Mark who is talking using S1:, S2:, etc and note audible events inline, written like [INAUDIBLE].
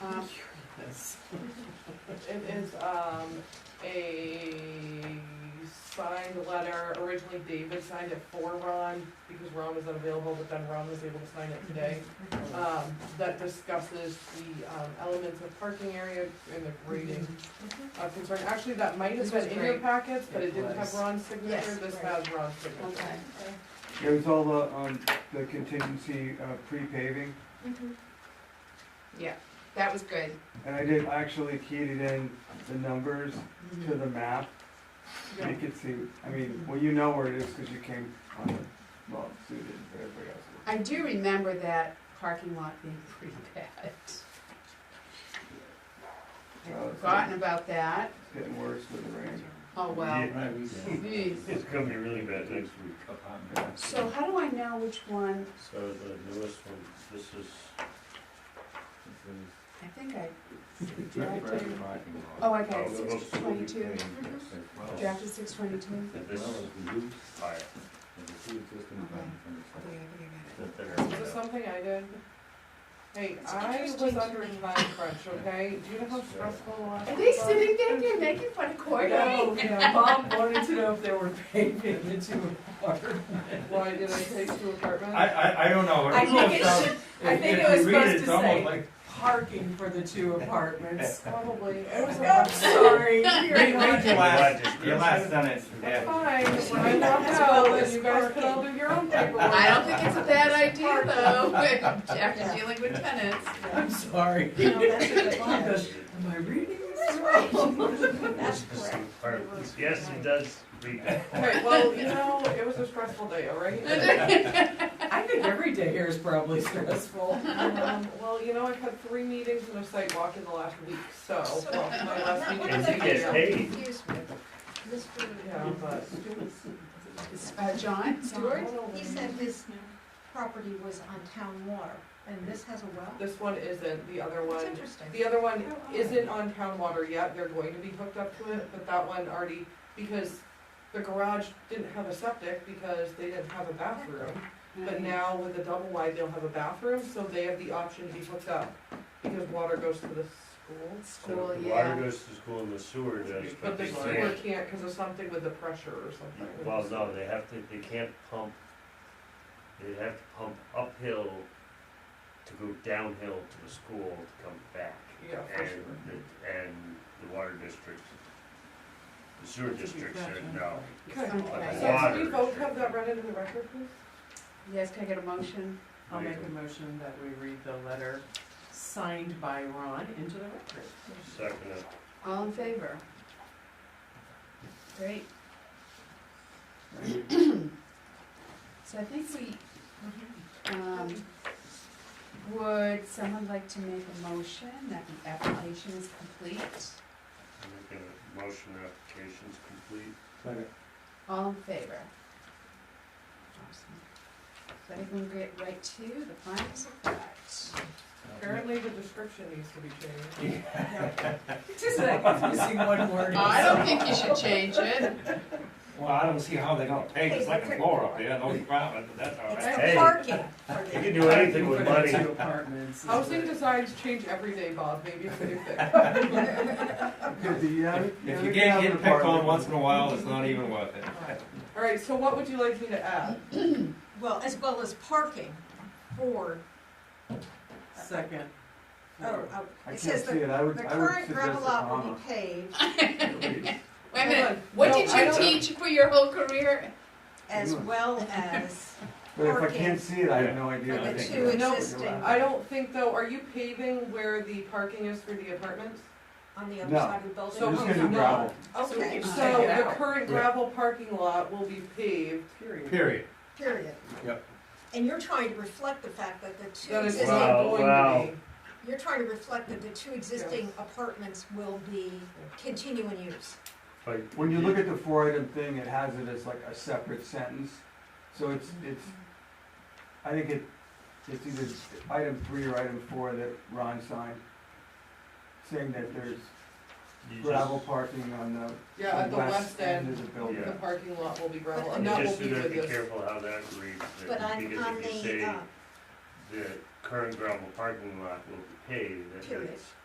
S1: It is, um, a signed letter, originally David signed it for Ron, because Ron was unavailable, but then Ron was able to sign it today.
S2: Mm-hmm.
S1: Um, that discusses the, um, elements of parking area and the grading of concern. Actually, that might have
S2: Mm-hmm. This
S1: been
S2: was
S1: in your
S2: great.
S1: packets, but it
S3: It
S1: didn't have
S3: was.
S1: Ron's signature,
S2: Yes,
S1: this
S2: right.
S1: has Ron's signature.
S2: Okay.
S4: It was all the, um, the contingency, uh, pre-paving,
S2: Yeah, that was good.
S4: and I did actually keyed it in the numbers
S5: Mm-hmm.
S4: to the map.
S1: Yeah.
S4: You could see, I mean, well, you know where it is, cause you came on the, well, so you did, but everybody else. did.
S2: I do remember that parking lot being [LAUGHS] pretty bad.
S4: Oh,
S2: I'd
S4: it's-
S2: forgotten about that.
S4: It's getting worse with the rain.
S2: Oh, well.
S3: Yeah.
S2: Jeez.
S6: It's gonna be really bad next week.
S2: So how do I know which one?
S6: So uh, the newest one, this is,
S2: I think I drafted, oh,
S3: Oh,
S2: I got
S6: Oh,
S2: it,
S6: the most
S2: six
S6: will be
S2: twenty-two,
S6: Oh.
S2: drafted
S6: [LAUGHS]
S2: six twenty-two.
S6: and this is higher.
S2: Okay, I
S6: The thinner.
S1: Is this something I did? Hey, I was
S2: interesting to
S1: under
S2: me.
S1: time crunch, okay? Do you know how stressful it was?
S2: think I got it. Are they sitting back there making fun of Courtney?
S5: No, [LAUGHS] yeah, Bob wanted to know if they were paving the two apart.
S1: Why did I take two apartments?
S3: I, I, I don't know.
S5: I think it
S3: almost
S5: should,
S3: sounds-
S5: I
S3: if-
S5: think
S3: if
S5: it was
S3: you read
S5: supposed
S3: it's
S5: to
S3: almost
S5: say-
S3: like-
S5: parking for the two apartments.
S1: Probably. It was
S5: [LAUGHS] I'm
S1: a-
S2: [LAUGHS]
S5: sorry.
S3: Read, read your last,
S6: description.
S3: your last sentence,
S1: That's
S3: yeah.
S1: fine. When I walk out, then you guys can all do your own paperwork.
S2: I don't think it's a bad idea though, [LAUGHS] after dealing with tenants.
S5: I'm sorry.
S7: No, that's a good
S5: Bob
S7: one.
S1: [LAUGHS]
S5: goes, am I reading this wrong?
S7: That's
S6: This is
S7: correct.
S6: the part- Yes, it does read that.
S1: Okay, well, you know, it was a stressful day, all right?
S5: [LAUGHS] I think every day here is probably stressful.
S1: Um, Well, you know, I've had three meetings and a site walk in the last week, so, well, my last meeting.
S6: And
S1: was
S6: you get paid.
S2: Excuse me.
S1: Yeah, but.
S2: Uh, John Stewart?
S7: He said this property was on town water, and this has a well?
S1: This one isn't, the other
S7: It's
S1: one
S7: interesting.
S1: The other one isn't on town water yet, they're going to be hooked up to it, but that one already, because the garage didn't have a septic because they didn't have a bathroom.
S2: Mm-hmm.
S1: But now with the double wide, they'll have a bathroom, so they have the option to be hooked up, because water goes to the school.
S2: School,
S6: So the
S2: yeah.
S6: Water goes to school and the sewer does, but
S1: But the
S6: they
S1: sewer
S6: can't,
S1: can't, cause of something with the pressure or something.
S6: well, no, they have to, they can't pump, they have to pump uphill to go downhill to the school to come back.
S1: Yeah, for
S6: and,
S1: sure.
S6: the- and the water districts, the sewer districts said no.
S1: Okay,
S2: Okay.
S1: so can we both have that read into the record, please?
S2: Yes, can I get a motion?
S5: I'll make a motion that we read the letter signed by Ron into the record.
S6: Second, uh,
S2: All in favor? Great. So I think we, um, would someone like to make a motion that the application is complete?
S6: make a motion, application's complete.
S2: All in favor? Awesome. So I can get right to the findings of fact.
S1: Apparently the description needs to be changed. [LAUGHS]
S5: Just that confusing one word.
S2: I don't think you should change it.
S3: Well, I don't see how they're gonna pay, it's like a floor up there, no problem, but that's all right.
S7: It's parking. for
S6: You
S7: the-
S6: can do anything with
S5: For the
S6: money.
S5: two apartments.
S1: Housing designs change every day, Bob, maybe it's a new
S4: [LAUGHS]
S1: thing.
S4: If you
S3: If you can't get picked on once in a while, it's not even worth it.
S1: All right, so what would you like me to add?
S7: [CLEARS THROAT] Well, as well as parking for,
S5: Second.
S7: oh, oh,
S4: I
S7: it
S4: can't
S7: says
S4: see
S7: the,
S4: it, I would,
S7: the
S4: I would
S7: current
S4: suggest a
S7: gravel lot will
S4: comma.
S7: be paved
S2: Wait a
S1: Hold
S2: minute,
S1: on.
S2: what
S1: No,
S2: did
S1: I
S2: you
S1: don't-
S2: teach for your whole career?
S7: as well as
S4: But if I
S7: Parking.
S4: can't see it, I have no
S7: for
S4: idea.
S3: I
S7: the
S3: think
S7: two
S3: you're-
S1: No,
S7: existing
S1: I don't think though, are you paving where the parking is for the apartments?
S7: on the other
S4: No.
S7: side of the
S4: I'm
S7: building.
S1: So
S4: just gonna do
S1: no.
S4: gravel,
S7: Okay,
S1: So
S5: Take it
S1: the
S5: out.
S1: current gravel parking lot will be paved.
S5: Period.
S3: Period.
S7: period.
S3: Yep.
S7: And you're trying to reflect the fact that the two
S1: That is
S7: existing
S1: not
S6: Wow,
S1: going
S6: wow.
S1: to
S7: You're trying to reflect that the two existing apartments will be continuing use.
S6: But
S4: when you look at the four item thing, it has it as like a separate sentence, so it's, it's, I think it, it's either item three or item four that Ron signed, saying that there's
S6: you
S4: gravel
S6: just,
S4: parking on the
S1: be, yeah, at the west end,
S4: of the building.
S1: the parking lot will be gravel,
S6: you
S1: and that will
S6: just
S1: be
S6: do that,
S1: with
S6: be
S1: this.
S6: careful how that reads,
S7: But
S6: that-
S7: on,
S6: because
S7: on
S6: if you
S7: the,
S6: say
S7: uh,
S6: the current gravel parking lot will be paved, that
S7: Period.
S6: it's